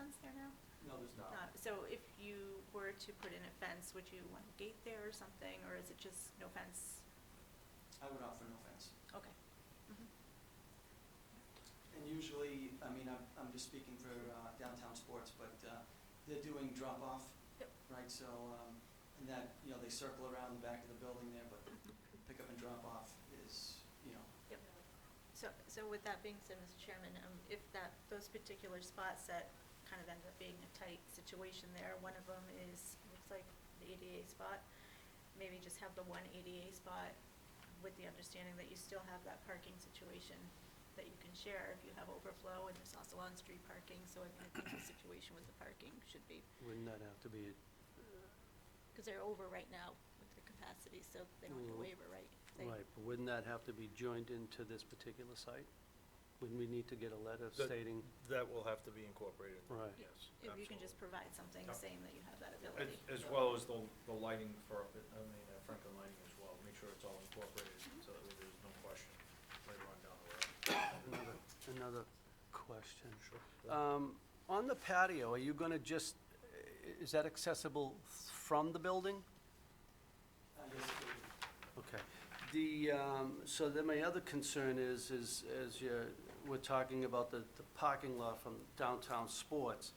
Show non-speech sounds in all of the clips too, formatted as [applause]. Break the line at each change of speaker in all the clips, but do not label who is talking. Uh, so if you were to put in a fence, would you want a gate there or something, or is it just no fence?
I would offer no fence.
Okay. Mhm.
And usually, I mean, I'm, I'm just speaking for uh, downtown sports, but uh, they're doing drop-off,
Yep.
right? So, um, and that, you know, they circle around the back of the building there, but pick up and drop-off is, you know,
Yep. So, so with that being said, Mr. Chairman, um, if that, those particular spots that kind of end up being a tight situation there, one of them is, looks like the ADA spot, maybe just have the one ADA spot with the understanding that you still have that parking situation that you can share if you have overflow, and there's also on-street parking, so I I think the situation with the parking should be,
Wouldn't that have to be,
because they're over right now with the capacity, so they don't get a
Mm.
waiver, right? They-
right, but wouldn't that have to be joined into this particular site? Wouldn't we need to get a letter
That-
stating,
That will have to be incorporated.
right?
Yeah.
Yes,
If you can just
absolutely.
provide something
Yep.
saying that you have that
As,
ability.
as well as the, the lighting for, I mean, uh, Franklin lighting as well, make sure it's all incorporated,
Mm-hmm.
so that way there's no question later on down the road.
Another- Another question.
Sure. Uh,
Um, On the patio, are you going to just, i- is that accessible from the building?
I guess it would-
Okay. The, um, so then my other concern is, is as you're, we're talking about the the parking lot from downtown sports.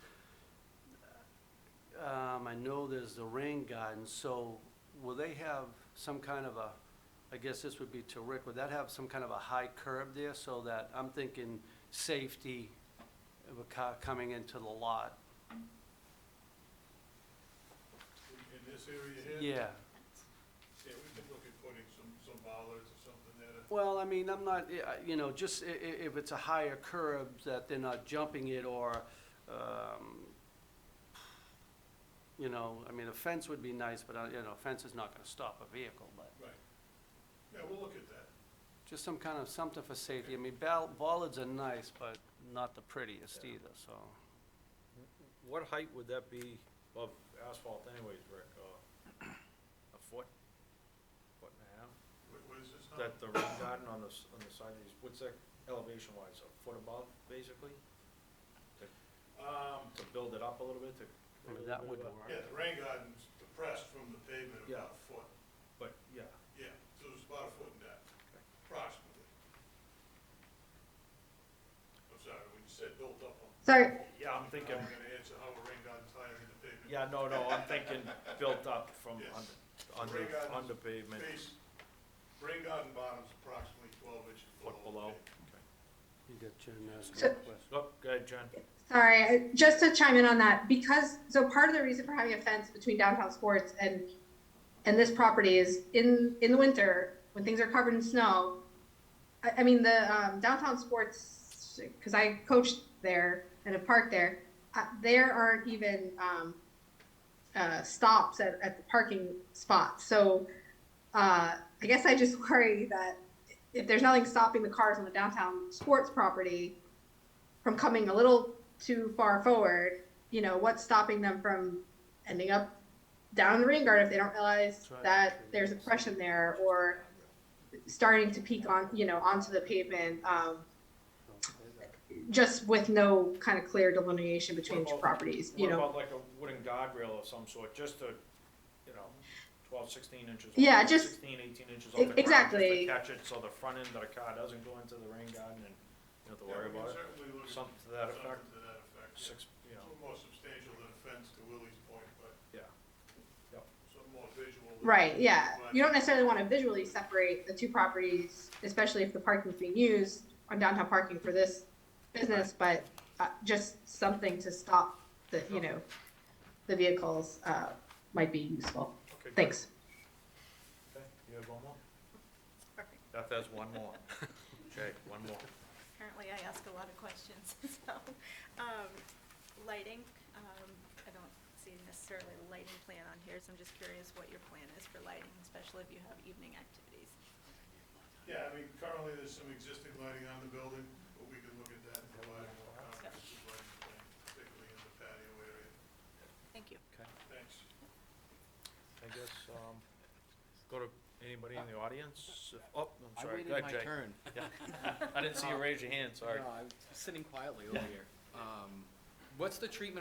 Um, I know there's the rain garden, so will they have some kind of a, I guess this would be to Rick, would that have some kind of a high curb there so that, I'm thinking safety of a car coming into the lot?
In this area here?
Yeah.
Yeah, we could look at putting some, some bollards or something there.
Well, I mean, I'm not, eh, I- you know, just i- i- if it's a higher curb that they're not jumping it or, um, you know, I mean, a fence would be nice, but, uh, you know, a fence is not gonna stop a vehicle, but
Right. Yeah, we'll look at that.
just some kind of, something for safety. I mean, bal- bollards are nice, but not the prettiest
Yeah.
either, so.
What height would that be of asphalt anyways, Rick? Uh, A foot? Foot and a half?
What, what is this now?
That the rain garden on the, s- on the side of these, what's that elevation wise, a foot above, basically? To,
Um,
to build it up a little bit, to.
I mean, that would
yeah,
work.
the rain garden's depressed from the pavement about
Yeah.
a foot.
But, yeah,
Yeah, so it's about a foot in depth,
okay.
approximately. I'm sorry, when you said built up, I'm.
Sorry,
Yeah, I'm thinking,
I'm gonna answer how a rain garden's higher than the pavement.
yeah, no, no, I'm thinking built up from
Yes.
under,
Rain
under,
garden's
under pavement,
Base, rain garden bottom's approximately twelve inches below.
foot below.
pavement.
Okay.
You got Jen asking
So-
a question.
Oh, go ahead, Jen.
sorry, I- just to chime in on that, because, so part of the reason for having a fence between downtown sports and, and this property is in, in the winter, when things are covered in snow, I, I mean, the um, downtown sports, because I coached there and have parked there, uh, there aren't even um, uh, stops at, at the parking spots. So uh, I guess I just [laughs] worry that if there's nothing stopping the cars on the downtown sports property, from coming a little too far forward, you know, what's stopping them from ending up down in the rain garden if they don't realize
Right.
that there's a depression there or starting to peak on, you know, onto the pavement, um, just with no kind of clear delineation between
What about-
properties, you know?
What about like a wooden guardrail of some sort, just to, you know, 12, 16 inches? off-
Yeah, just-
16, 18 inches off the
E-
ground. just to
exactly.
Catch it so the front end of the car doesn't go into the rain garden and you don't have to
Yeah,
worry
we can
about it.
certainly look at
Something to that effect,
Something to that effect, yeah.
six, you know,
Some more substantial than a fence to Willie's point, but
yeah. Yep.
some more visual. than-
Right, yeah.
but-
You don't necessarily want to visually separate the two properties, especially if the parking's being used on downtown parking for this business, but uh, just something to stop the, you know, the vehicles uh, might be useful.
Okay, good.
Thanks.
Okay, you have one more?
Perfect.
Beth has one
[laughs]
more. Okay, one more.
Apparently, I ask a lot of questions, [laughs] so, um, lighting, um, I don't see necessarily a lighting plan on here, so I'm just curious what your plan is for lighting, especially if you have evening activities.
Yeah, I mean, currently there's some existing lighting on the building, but we can look at that and provide a more comprehensive lighting plan, particularly in the patio area.
Thank you.
Okay,
Thanks.
I guess, um, go to anybody in the audience? Oh, I'm
I
sorry.
waited
Go ahead,
my
Jay.
turn. Uh,
Yeah. I didn't see you raise your hand, sorry.
No, I was sitting quietly over here. Um, what's the treatment